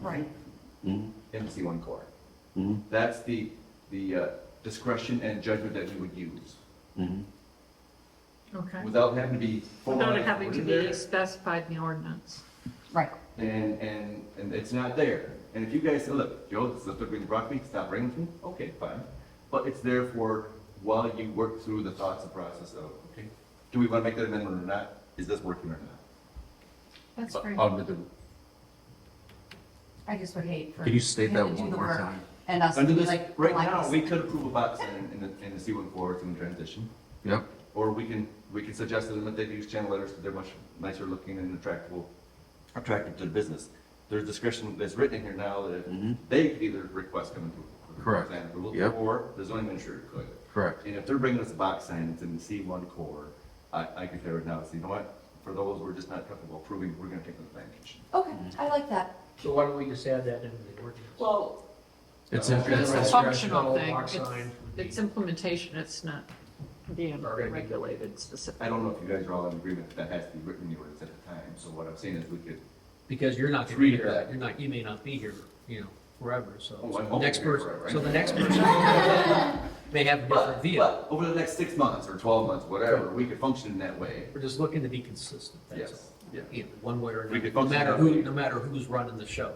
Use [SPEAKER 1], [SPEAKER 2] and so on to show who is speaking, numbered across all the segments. [SPEAKER 1] Right.
[SPEAKER 2] Mhm.
[SPEAKER 3] in C1 core.
[SPEAKER 2] Mhm.
[SPEAKER 3] That's the, the uh, discretion and judgment that we would use, mm-hmm.
[SPEAKER 2] Mhm.
[SPEAKER 4] Okay.
[SPEAKER 3] without having to be.
[SPEAKER 4] Without
[SPEAKER 3] formalized
[SPEAKER 4] it having to
[SPEAKER 3] in there.
[SPEAKER 4] be specified in the ordinance.
[SPEAKER 1] Right.
[SPEAKER 3] And, and, and it's not there. And if you guys say, look, Joe, this is what brings brought me, stop bringing it to me, okay, fine. But it's there for while you work through the thoughts and process of, okay, do we want to make that amendment or not? Is this working or not?
[SPEAKER 4] That's great.
[SPEAKER 2] Under the,
[SPEAKER 1] I just would hate for.
[SPEAKER 2] Can you state
[SPEAKER 1] him to
[SPEAKER 2] that
[SPEAKER 1] do
[SPEAKER 2] one
[SPEAKER 1] the
[SPEAKER 2] more
[SPEAKER 1] work
[SPEAKER 2] time?
[SPEAKER 1] And us to
[SPEAKER 3] Under
[SPEAKER 1] be
[SPEAKER 3] this,
[SPEAKER 1] like.
[SPEAKER 3] right
[SPEAKER 1] like
[SPEAKER 3] now,
[SPEAKER 1] us.
[SPEAKER 3] we could approve a box in, in the, in the C1 core, it's in transition.
[SPEAKER 2] yep,
[SPEAKER 3] Or we can, we can suggest to them that they use channel letters, that they're much nicer looking and attractable, attractive to the business. There's discretion that's written in here now
[SPEAKER 2] Mhm.
[SPEAKER 3] that they could either request coming to.
[SPEAKER 2] Correct.
[SPEAKER 3] Plan approval,
[SPEAKER 2] Yep.
[SPEAKER 3] or the zoning administrator could.
[SPEAKER 2] correct.
[SPEAKER 3] And if they're bringing us a box sign that's in the C one core, I, I could tear it down, so you know what? For those, we're just not comfortable approving, we're gonna take them to planning commission.
[SPEAKER 1] Okay, I like that.
[SPEAKER 5] So why don't we just add that into the ordinance?
[SPEAKER 1] Well.
[SPEAKER 2] It's
[SPEAKER 5] Uh,
[SPEAKER 4] It's a
[SPEAKER 2] interesting.
[SPEAKER 5] Right.
[SPEAKER 4] functional thing.
[SPEAKER 5] Box
[SPEAKER 4] It's-
[SPEAKER 5] sign would be-
[SPEAKER 4] It's implementation, it's not being
[SPEAKER 5] Or maybe-
[SPEAKER 4] regulated specifically.
[SPEAKER 3] I don't know if you guys are all in agreement that that has to be written in the ordinance at the time, so what I'm saying is we could.
[SPEAKER 5] Because you're not gonna
[SPEAKER 3] Three
[SPEAKER 5] be here,
[SPEAKER 3] to-
[SPEAKER 5] you're not, you may not be here, you know, forever, so.
[SPEAKER 3] Oh, I'm
[SPEAKER 5] so the
[SPEAKER 3] hoping
[SPEAKER 5] Next
[SPEAKER 3] you're
[SPEAKER 5] person,
[SPEAKER 3] forever,
[SPEAKER 5] so
[SPEAKER 3] right?
[SPEAKER 5] the next person may have a different
[SPEAKER 3] But,
[SPEAKER 5] view.
[SPEAKER 3] but over the next six months or twelve months, whatever, we could function in that way.
[SPEAKER 5] We're just looking to be consistent, that's
[SPEAKER 3] Yes,
[SPEAKER 5] all.
[SPEAKER 3] yeah.
[SPEAKER 5] You know, one way or
[SPEAKER 3] We
[SPEAKER 5] another,
[SPEAKER 3] could
[SPEAKER 5] no
[SPEAKER 3] function
[SPEAKER 5] matter
[SPEAKER 3] that way.
[SPEAKER 5] who, no matter who's running the show.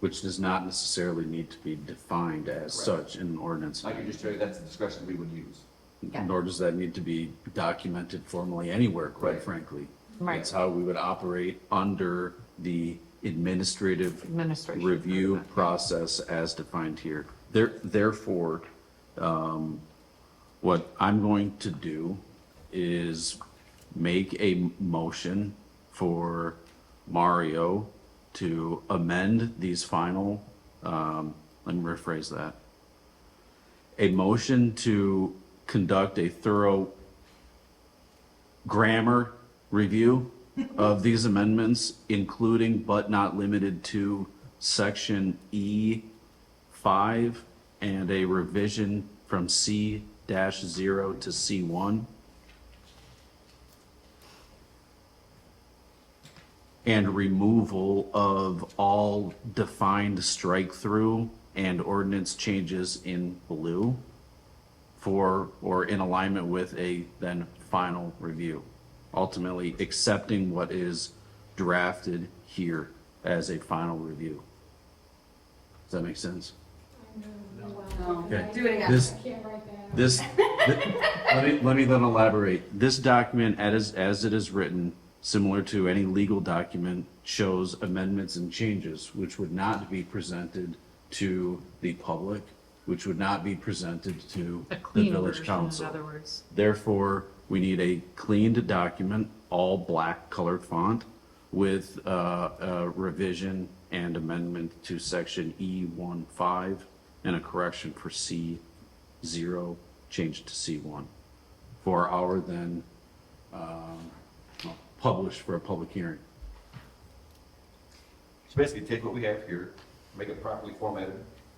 [SPEAKER 2] Which does not necessarily need to be defined
[SPEAKER 3] Correct.
[SPEAKER 2] as such in an ordinance.
[SPEAKER 3] I can just tell you that's the discretion we would use.
[SPEAKER 1] Yeah.
[SPEAKER 2] Nor does that need to be documented formally anywhere, quite
[SPEAKER 3] Right.
[SPEAKER 2] frankly.
[SPEAKER 4] Right.
[SPEAKER 2] That's how we would operate under the administrative
[SPEAKER 4] Administration.
[SPEAKER 2] review process as defined here. There, therefore, um, what I'm going to do is make a motion for Mario to amend these final, um, let me rephrase that. A motion to conduct a thorough grammar review of these amendments, including but not limited to section E five and a revision from C dash zero to C one. And removal of all defined strike through and ordinance changes in blue for or in alignment with a then final review. Ultimately, accepting what is drafted here as a final review. Does that make sense? Okay.
[SPEAKER 6] Do it again.
[SPEAKER 2] This-
[SPEAKER 6] I can't write that.
[SPEAKER 2] This, th- let me, let me then elaborate. This document as, as it is written, similar to any legal document, shows amendments and changes which would not be presented to the public, which would not be presented to
[SPEAKER 4] A
[SPEAKER 2] the
[SPEAKER 4] clean
[SPEAKER 2] village
[SPEAKER 4] version, in
[SPEAKER 2] council.
[SPEAKER 4] other words.
[SPEAKER 2] Therefore, we need a cleaned document, all black colored font with uh, a revision and amendment to section E15 and a correction for C0 changed to C1 for our then um, published for a public hearing.
[SPEAKER 3] So basically, take what we have here, make it properly formatted,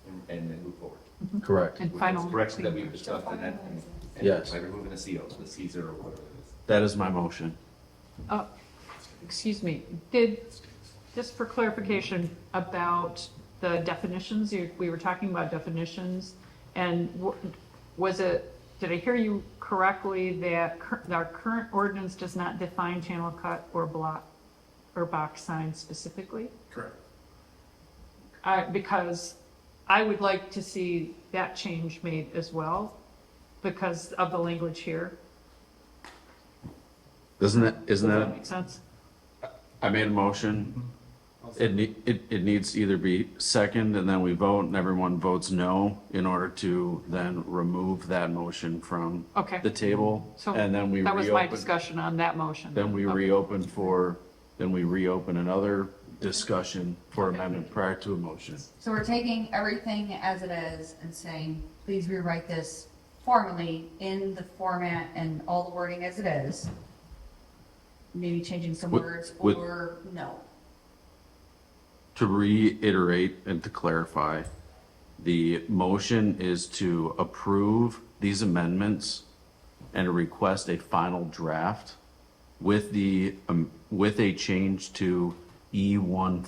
[SPEAKER 3] and, and then move forward.
[SPEAKER 2] Correct.
[SPEAKER 4] And
[SPEAKER 3] With
[SPEAKER 4] final.
[SPEAKER 3] those Corrections that
[SPEAKER 4] clean
[SPEAKER 3] we've discussed and that. and- and
[SPEAKER 2] Yes.
[SPEAKER 3] By removing the CO, so the C zero, or whatever it is.
[SPEAKER 2] That is my motion.
[SPEAKER 4] Uh, Excuse me, did, just for clarification about the definitions, you, we were talking about definitions, and w- was it, did I hear you correctly that cur- our current ordinance does not define channel cut or block or box sign specifically?
[SPEAKER 5] Correct.
[SPEAKER 4] Uh, because I would like to see that change made as well, because of the language here.
[SPEAKER 2] Doesn't that, isn't
[SPEAKER 4] Does
[SPEAKER 2] that?
[SPEAKER 4] that make sense?
[SPEAKER 2] I made a motion. It, ne- it, it needs to either be second and then we vote and everyone votes no in order to then remove that motion from
[SPEAKER 4] Okay.
[SPEAKER 2] the table.
[SPEAKER 4] So
[SPEAKER 2] And then we
[SPEAKER 4] That was my
[SPEAKER 2] reopen,
[SPEAKER 4] discussion on that motion.
[SPEAKER 2] then we
[SPEAKER 4] Okay.
[SPEAKER 2] reopen for, then we reopen another discussion for amendment prior to a motion.
[SPEAKER 1] So we're taking everything as it is and saying, please rewrite this formally in the format and all the wording as it is. Maybe changing some
[SPEAKER 2] With-
[SPEAKER 1] words
[SPEAKER 2] with-
[SPEAKER 1] or no.
[SPEAKER 2] To reiterate and to clarify, the motion is to approve these amendments and request a final draft with the, um, with a change to E one